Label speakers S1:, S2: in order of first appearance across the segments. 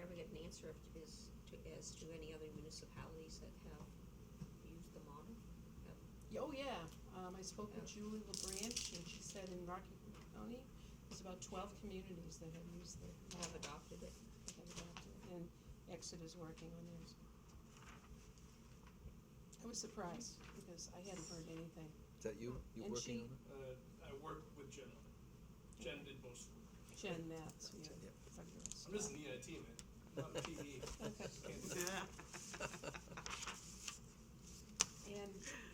S1: answer if- is to, as to any other municipalities that have used the model? Have-
S2: Yeah, Oh, yeah, um, I spoke with Julie LaBranch, and she said in Rocky County, there's about twelve communities that have used the model,
S1: Have adopted it?
S2: that have adopted it, and Exeter is working on theirs. I was surprised, because I hadn't heard anything.
S3: Is that you? You
S2: And
S3: working
S2: she-
S3: on it?
S4: Uh, I worked with Jen on it. Jen did most of the work.
S2: Jen Matz, yeah.
S3: Yep.
S4: I'm just
S5: E
S4: an EIT, man. I'm not a PE.
S2: Okay.
S4: Can't do that.
S2: And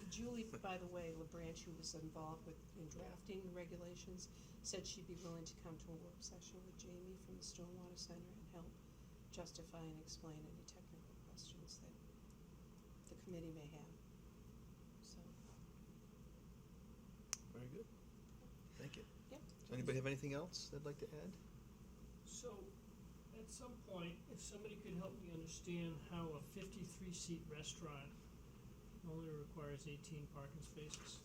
S2: Julie, by the way, LaBranch, who was involved with, in drafting the regulations, said she'd be willing to come to a work session with Jamie from the Stormwater Center and help justify and explain any technical questions that the committee may have. So,
S3: Very good. Thank you.
S2: Yep.
S3: Does anybody have anything else they'd like to add?
S5: So, at some point, if somebody could help me understand how a fifty-three seat restaurant only requires eighteen parking spaces.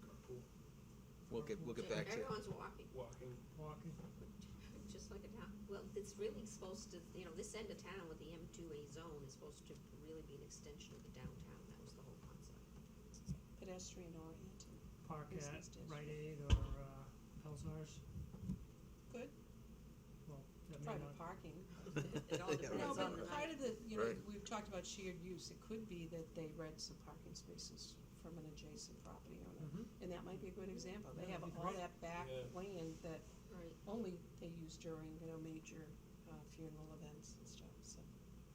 S4: Carpool,
S3: We'll get, we'll get back to you.
S1: Everyone's walking,
S4: walking.
S5: Walking,
S1: just like a town, well, it's really supposed to, you know, this end of town with the M two A zone is supposed to really be an extension of the downtown, that was the whole concept.
S2: pedestrian oriented.
S5: park at
S2: Business district.
S5: Rite Aid or, uh, Pelsars,
S2: Good.
S5: well, that may
S2: Private
S5: not,
S2: parking.
S1: It all
S3: Yeah,
S2: No,
S1: depends
S3: right.
S2: but
S1: on the
S2: part
S1: night.
S2: of the, you know,
S3: Right.
S2: we've talked about shared use, it could be that they rent some parking spaces from an adjacent property owner.
S5: Mhm.
S2: And that might be a good example, they
S5: Yeah,
S2: have
S5: that'd be
S2: all
S5: great.
S2: that back
S4: Yeah.
S2: land that
S1: Right,
S2: only they use during, you know, major uh, funeral events and stuff, so.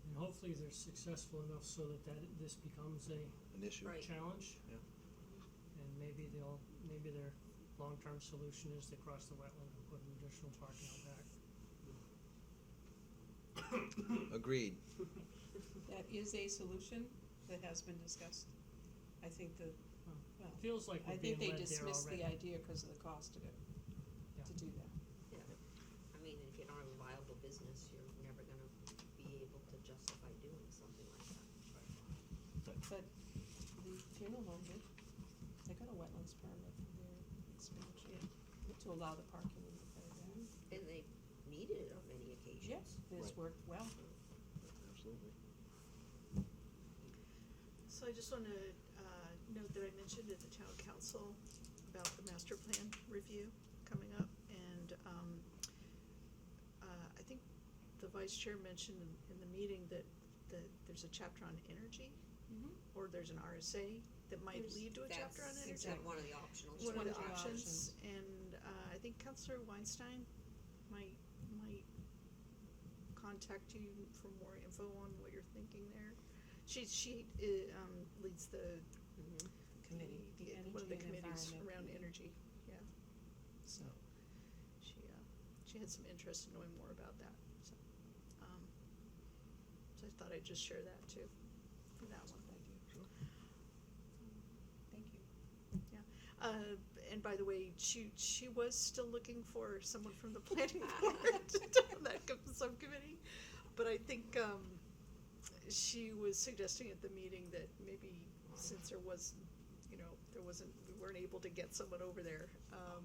S5: and hopefully they're successful enough so that that, this becomes a
S3: An issue.
S1: Right.
S5: challenge.
S3: Yeah.
S5: And maybe they'll, maybe their long-term solution is to cross the wetland and put an additional parking out back.
S3: Agreed.
S2: That is a solution that has been discussed. I think the, well,
S5: Feels like
S2: I
S5: we're being
S2: think they
S5: led there
S2: dismissed the
S5: already.
S2: idea because of the cost of it,
S5: Yeah.
S2: to do that.
S1: yeah, I mean, if you don't have a viable business, you're never gonna be able to justify doing something like that.
S2: But the funeral home did, they got a wetlands permit for their expansion, to allow the parking in the playground.
S1: And they needed it on many occasions.
S2: Yes, it's
S3: Right.
S2: worked well.
S3: Absolutely.
S6: So I just want to uh, note that I mentioned at the town council about the master plan review coming up, and um, uh, I think the vice chair mentioned in- in the meeting that, that there's a chapter on energy, or there's an RSA that might
S2: There's-
S6: lead to a chapter on
S1: That's
S6: energy.
S2: exact-
S1: one of the optional.
S2: It's
S6: One of the
S1: strategies.
S6: options, and uh, I think Counselor Weinstein might, might contact you for more info on what you're thinking there. She, she uh, um, leads the
S1: Mhm.
S2: Committee, the energy
S6: the
S2: and
S6: committees
S2: environment.
S6: around energy, yeah. So,
S2: Yeah.
S6: she, uh, she had some interest in knowing more about that, so, um, so I thought I'd just share that too, for that one.
S2: Thank you.
S6: Uh, and by the way, she, she was still looking for someone from the planning board on that co- subcommittee, but I think, um, she was suggesting at the meeting that maybe since there was, you know, there wasn't, we weren't able to get someone over there, um,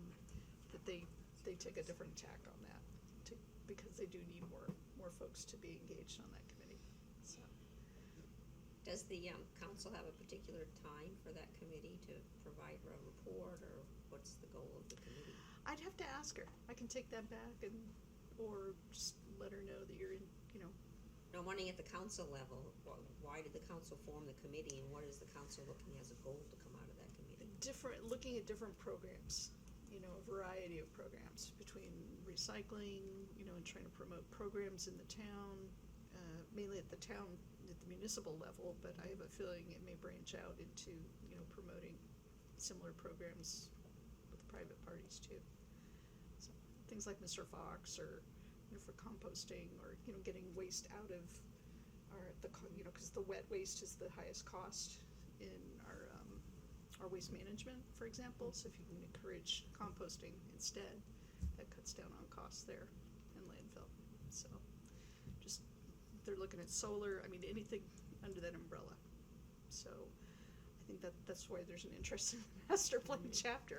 S6: that they, they took a different tack on that, to, because they do need more, more folks to be engaged on that committee, so.
S1: Does the, um, council have a particular time for that committee to provide a report, or what's the goal of the committee?
S6: I'd have to ask her. I can take that back and, or just let her know that you're in, you know,
S1: No, I'm wondering at the council level, wh- why did the council form the committee, and what is the council looking as a goal to come out of that committee?
S6: different, looking at different programs, you know, a variety of programs between recycling, you know, and trying to promote programs in the town, uh, mainly at the town, at the municipal level, but I have a feeling it may branch out into, you know, promoting similar programs with private parties too. So, things like Mr. Fox or, you know, for composting or, you know, getting waste out of our, the, co- you know, cause the wet waste is the highest cost in our, um, our waste management, for example, so if you can encourage composting instead, that cuts down on costs there and landfill. So just, they're looking at solar, I mean, anything under that umbrella. So I think that, that's why there's an interest in the master plan chapter,